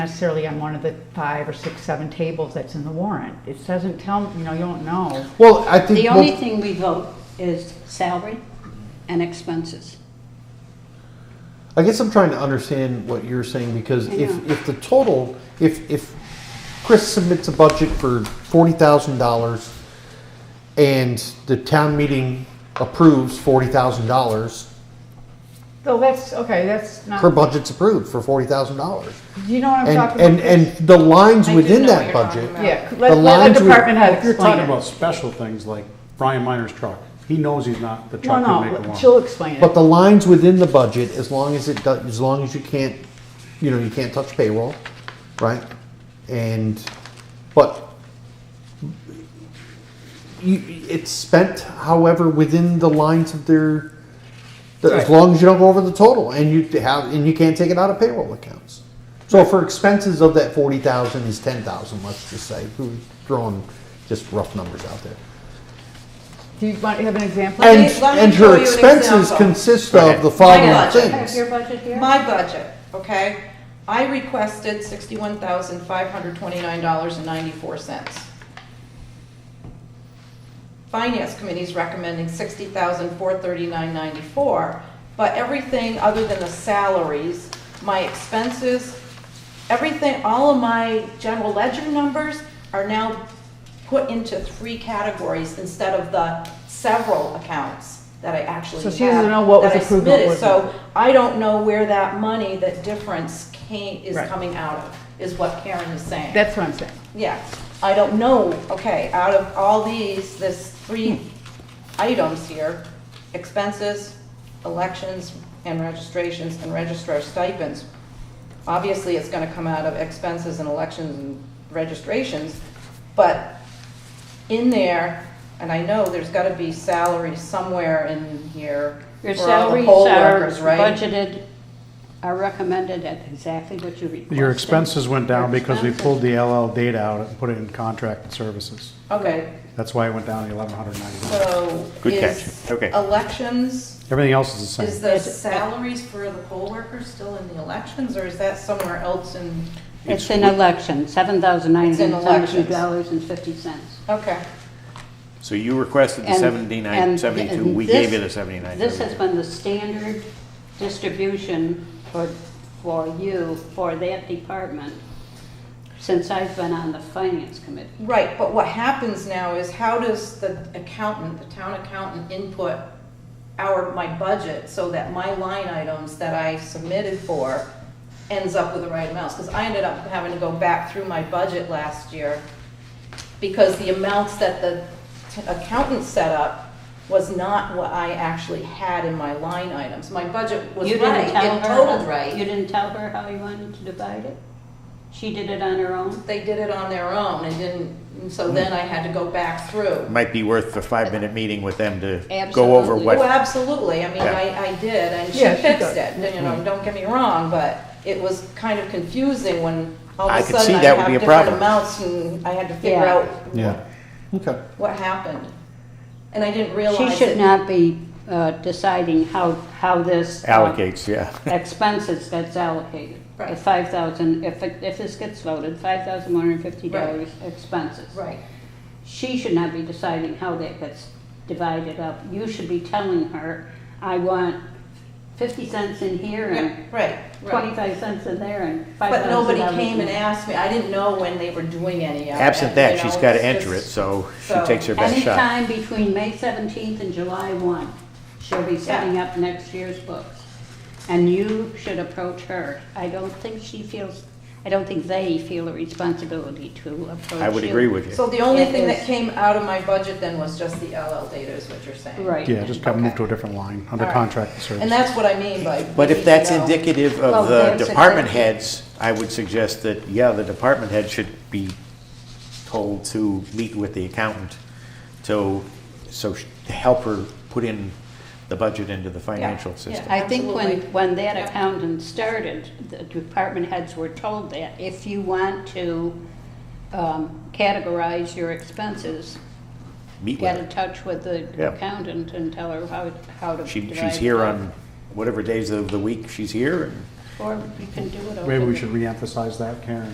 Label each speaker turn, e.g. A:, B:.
A: necessarily on one of the five or six, seven tables that's in the warrant. It doesn't tell, you know, you don't know.
B: Well, I think.
C: The
B: well,
C: only thing we vote is salary and expenses.
B: I guess I'm trying to understand what you're saying because
C: I
B: if,
C: know.
B: if the total, if, if Chris submits a budget for forty thousand dollars and the town meeting approves forty thousand dollars,
A: So that's, okay, that's
B: her
A: not,
B: budget's approved for forty thousand dollars.
A: do you know what I'm
B: And,
A: talking
B: and,
A: about?
B: and the lines
D: I do
B: within
D: know what
B: that
D: you're talking
B: budget.
D: about.
A: Yeah, let,
B: the
A: let
B: lines
A: the
B: we-
A: department head
E: If you're
A: explain
E: talking
A: it.
E: about special things like Brian Minor's truck, he knows he's not, the truck
A: No,
E: could make a
A: no,
E: warrant.
A: she'll explain
B: But
A: it.
B: the lines within the budget, as long as it does, as long as you can't, you know, you can't touch payroll, right? And, but you, it's spent however within the lines of their, the- as
E: Right.
B: long as you don't go over the total and you have, and you can't take it out of payroll accounts. So for expenses of that forty thousand is ten thousand, let's just say, who's throwing just rough numbers out there.
A: Do you want, have an example?
B: And,
D: me- let me
B: and
D: show you
B: her
D: an
B: expenses
D: example.
B: consist
E: Go ahead.
B: of the following
D: Mine
B: things.
C: Have
D: does.
C: your budget here?
D: My budget, okay? I requested sixty-one thousand five hundred twenty-nine dollars and ninety-four cents. Finance committee's recommending sixty thousand four thirty-nine ninety-four, but everything other than the salaries, my expenses, everything, all of my general ledger numbers are now put into three categories instead of the several accounts that I actually
A: So
D: have.
A: she doesn't know what was
D: that I
A: approved, what
D: submitted.
A: wasn't.
D: So I don't know where that money, that difference came, is
A: Right.
D: coming out of, is what Karen is saying.
A: That's what I'm saying.
D: Yeah, I don't know, okay, out of all these, this three items here, expenses, elections, and registrations, and registrar stipends, obviously it's gonna come out of expenses and elections and registrations, but in there, and I know there's gotta be salary somewhere in here
C: Your
D: for all the
C: salaries
D: poll
C: are
D: workers, right?
C: budgeted, are recommended at exactly what you requested.
E: Your expenses went down
C: Your
E: because we
C: expenses.
E: pulled the LL data out and put it in contract services.
D: Okay,
E: That's why it went down to eleven hundred ninety.
D: so
F: Good
D: is
F: catch. Okay.
D: elections
E: Everything else is the
D: Is
E: same.
D: the salaries for the poll workers still in the elections, or is that somewhere else in,
C: It's in election, seven thousand nine hundred and seventy-two dollars and
D: elections.
C: fifty cents.
D: okay.
F: So you requested the
C: And-
F: seventy-nine,
C: and-
F: seventy-two,
C: and
F: we
C: this-
F: gave you the seventy-nine.
C: This has been the standard distribution for, for you, for that department, since I've been on the finance committee.
D: Right, but what happens now is how does the accountant, the town accountant input our, my budget so that my line items that I submitted for ends up with the right amounts? Because I ended up having to go back through my budget last year because the amounts that the t- accountant set up was not what I actually had in my line items. My budget was
C: You didn't
D: right,
C: tell
D: it
C: her-
D: totaled right.
C: You didn't tell her how you wanted to divide it? She did it on her own?
D: They did it on their own and didn't, and so then I had to go back through.
F: Might be worth the five-minute meeting with them to go
C: Absolutely.
F: over
D: Oh,
F: what,
D: absolutely, I mean,
F: Yeah. Mm-hmm.
D: I, I did, and she
A: Yeah, she
D: fixed
A: got-
D: it, you know, don't get me wrong, but it was kind of confusing when all
F: I
D: of a
F: could
D: sudden
F: see
D: I
F: that
D: have
F: would be a
D: different
F: problem.
D: amounts and I had to figure
C: Yeah.
D: out
B: Yeah, okay.
D: what happened. And I didn't
C: She
D: realize
C: should
D: it.
C: not be uh, deciding how, how this. uh,
F: allocates, yeah.
C: Expenses that's allocated.
D: Right.
C: The five thousand, if, it- if this gets voted, five thousand one hundred fifty dollars expenses.
D: Right,
C: She should not be deciding how that gets divided up. You should be telling her, I want fifty cents in here
D: Yeah,
C: and
D: right, right.
C: twenty-five cents in there and five
D: But
C: thousand
D: nobody
C: dollars.
D: came and asked me, I didn't know when they were doing any of it.
F: Absent
D: you
F: that,
D: know,
F: she's gotta
D: it's
F: enter it,
D: just-
F: so she
D: so
F: takes her best shot.
C: Anytime between May 17th and July 1, she'll be setting up next year's books. And you should approach her. I don't think she feels, I don't think they feel a responsibility to approach you.
F: I would agree with
D: So
F: you.
D: the only
C: It
D: thing that
C: is-
D: came out of my budget then was just the LL data is what you're saying?
C: Right.
E: Yeah, just got moved
D: Okay.
E: to a different line under
D: All right.
E: contract
D: And
E: services.
D: that's what I mean by. we
F: But
D: need
F: if
D: to
F: that's
D: know.
F: indicative
C: Well,
F: of the
C: there's a
F: department
C: good-
F: heads, I would suggest that, yeah, the department head should be told to meet with the accountant to, so, sh- to help her put in the budget into the financial
D: yeah.
F: system.
C: I think when,
D: Absolutely.
C: when that
D: Yeah.
C: accountant started, the department heads were told that if you want to um, categorize your expenses,
F: Meet with
C: get
F: her.
C: in touch with the
F: Yeah.
C: accountant and tell her how, how to
F: She,
C: divide
F: she's here
C: it up.
F: on whatever days of the week she's here, and
C: Or you can do it over.
E: Maybe we
C: the-
E: should reemphasize that, Karen.